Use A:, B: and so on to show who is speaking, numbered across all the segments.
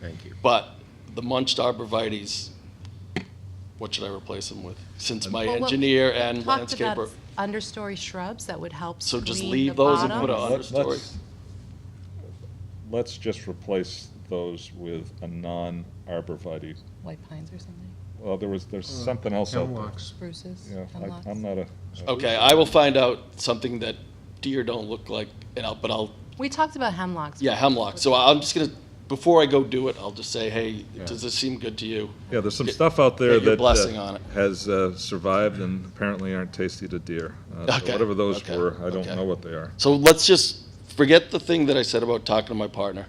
A: Thank you.
B: But the munched arborvitae's, what should I replace them with? Since my
C: Well, what-
B: engineer and
C: Talked about
B: landscaper,
C: understory shrubs that would help
B: So just
C: screen
B: leave
C: the
B: those and put
C: bottoms.
B: a-
D: Let-
B: understory.
D: let's- Let's just replace those with a non-arborvitae.
C: White pines or something,
D: Well, there was, there's something else out there.
A: Hemlocks.
C: spruces,
D: Yeah,
C: hemlocks.
D: I- I'm not a.
B: okay, I will find out something that deer don't look like, and I'll, but I'll,
C: We talked about hemlocks.
B: yeah, hemlock. So I'm just gonna, before I go do it, I'll just say, hey,
A: Yeah.
B: does this seem good to you?
D: Yeah, there's some
B: Get-
D: stuff out there
B: get your
D: that. uh,
B: blessing on it.
D: Has uh, survived and apparently aren't tasty to deer. Uh, so
B: Okay,
D: Whatever those
B: okay,
D: were, I don't
B: okay.
D: know what they are.
B: So let's just forget the thing that I said about talking to my partner.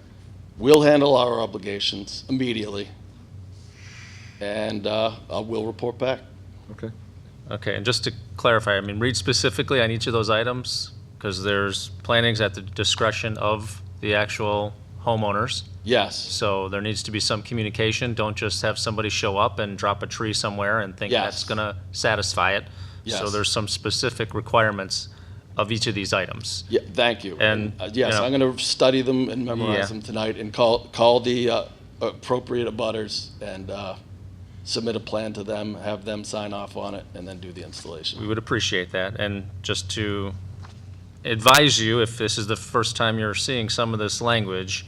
B: We'll handle our obligations immediately, and uh, I will report back.
D: Okay.
E: Okay, and just to clarify, I mean, read specifically on each of those items, because there's plantings at the discretion of the actual homeowners.
B: Yes,
E: So there needs to be some communication. Don't just have somebody show up and drop a tree somewhere and think
B: Yes.
E: that's gonna satisfy it. So
B: Yes.
E: there's some specific requirements of each of these items.
B: yeah, thank you.
E: And,
B: uh, yes,
E: you know-
B: I'm going to study them and memorize
E: Yeah.
B: them tonight, and call call the uh, appropriate abutters and uh, submit a plan to them, have them sign off on it, and then do the installation.
E: We would appreciate that. And just to advise you, if this is the first time you're seeing some of this language,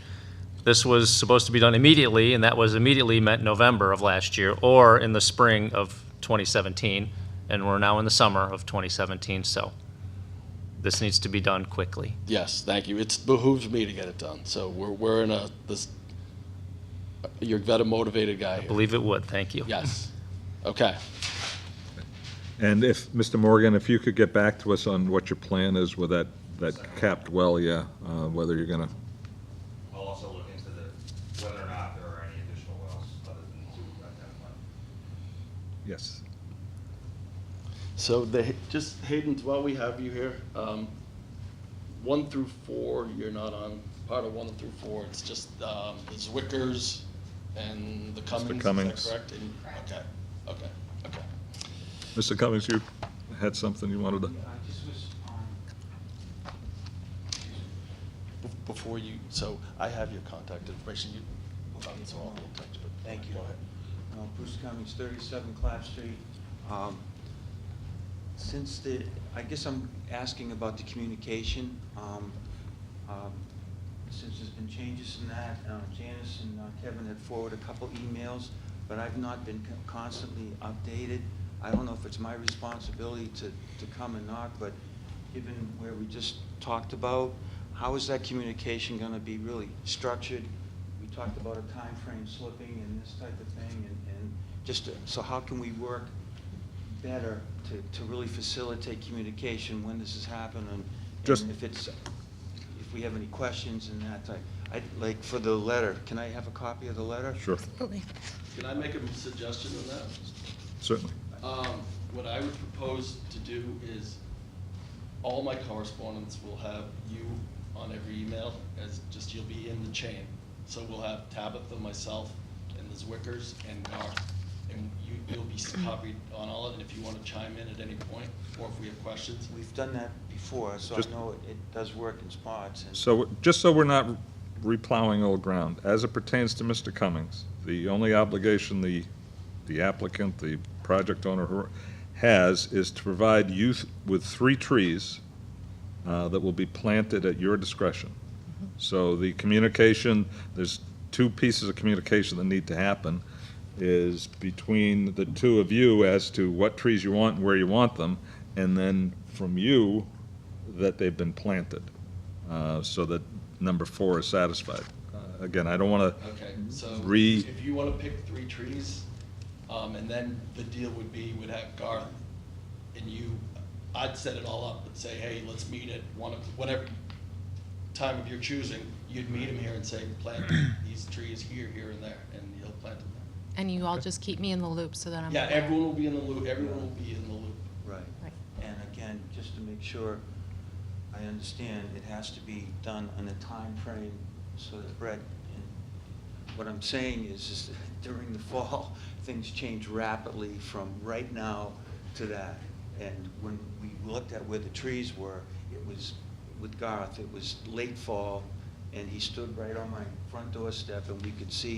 E: this was supposed to be done immediately, and that was immediately meant November of last year or in the spring of 2017. And we're now in the summer of 2017, so this needs to be done quickly.
B: Yes, thank you. It behooves me to get it done. So we're we're in a this. You're a motivated guy. here.
E: Believe it would, thank you.
B: Yes. Okay.
D: And if, Mr. Morgan, if you could get back to us on what your plan is with that, that capped well, yeah, uh, whether you're gonna,
F: We'll also look into the, whether or not there are any additional wells other than two identified.
D: yes.
B: So the, just Hayden, while we have you here, um, one through four, you're not on, part of one through four, it's just, um, the Zwickers and the Cummings, is
D: Cummings.
B: that correct? And- Okay, okay, okay.
D: Mr. Cummings, you had something you wanted to?
G: I just was, um,
B: Be- Before you, so I have your contact information, you, um, so I'll touch, but.
G: thank you.
B: Go ahead.
G: Uh, Bruce Cummings, 37 Clap Street. Um, Since the, I guess I'm asking about the communication. um, um, Since there's been changes in that, uh, Janice and uh, Kevin had forwarded a couple emails, but I've not been co- constantly updated. I don't know if it's my responsibility to, to come and knock, but given where we just talked about, how is that communication going to be really structured? We talked about a time frame slipping and this type of thing, and, and just, to- so how can we work better to, to really facilitate communication when this has happened and
D: Just-
G: and if it's, if we have any questions and that type. I, like, for the letter, can I have a copy of the letter?
D: Sure,
B: Can I make a suggestion on that?
D: certainly.
B: Um, what I would propose to do is, all my correspondence will have you on every email, as just you'll be in the chain. So we'll have Tabitha, myself, and the Zwickers, and Garth, and you, you'll be copied on all of it, and if you wanna chime in at any point, or if we have questions.
G: We've done that before, so
D: Just-
G: I know it- it does work in spots and.
D: So, just so we're not replowing old ground, as it pertains to Mr. Cummings, the only obligation the, the applicant, the project owner who has is to provide you th- with three trees uh, that will be planted at your discretion. So the communication, there's two pieces of communication that need to happen, is between the two of you as to what trees you want and where you want them, and then from you that they've been planted, uh, so that number four is satisfied. Uh, Again, I don't want to,
B: Okay, so
D: Re-
B: if you want to pick three trees, um, and then the deal would be, would have Garth and you, I'd set it all up and say, hey, let's meet at one of, whatever time of your choosing, you'd meet him here and say, plant these trees here, here, and there, and he'll plant them there.
C: And you all just keep me in the loop so that I'm.
B: Yeah, everyone will be in the loop, everyone will be in the loop.
G: Right.
C: Right.
G: And again, just to make sure I understand, it has to be done on a time frame so that Brett, and what I'm saying is, is that during the fall, things change rapidly from right now to that. And when we looked at where the trees were, it was, with Garth, it was late fall, and he stood right on my front doorstep, and we could see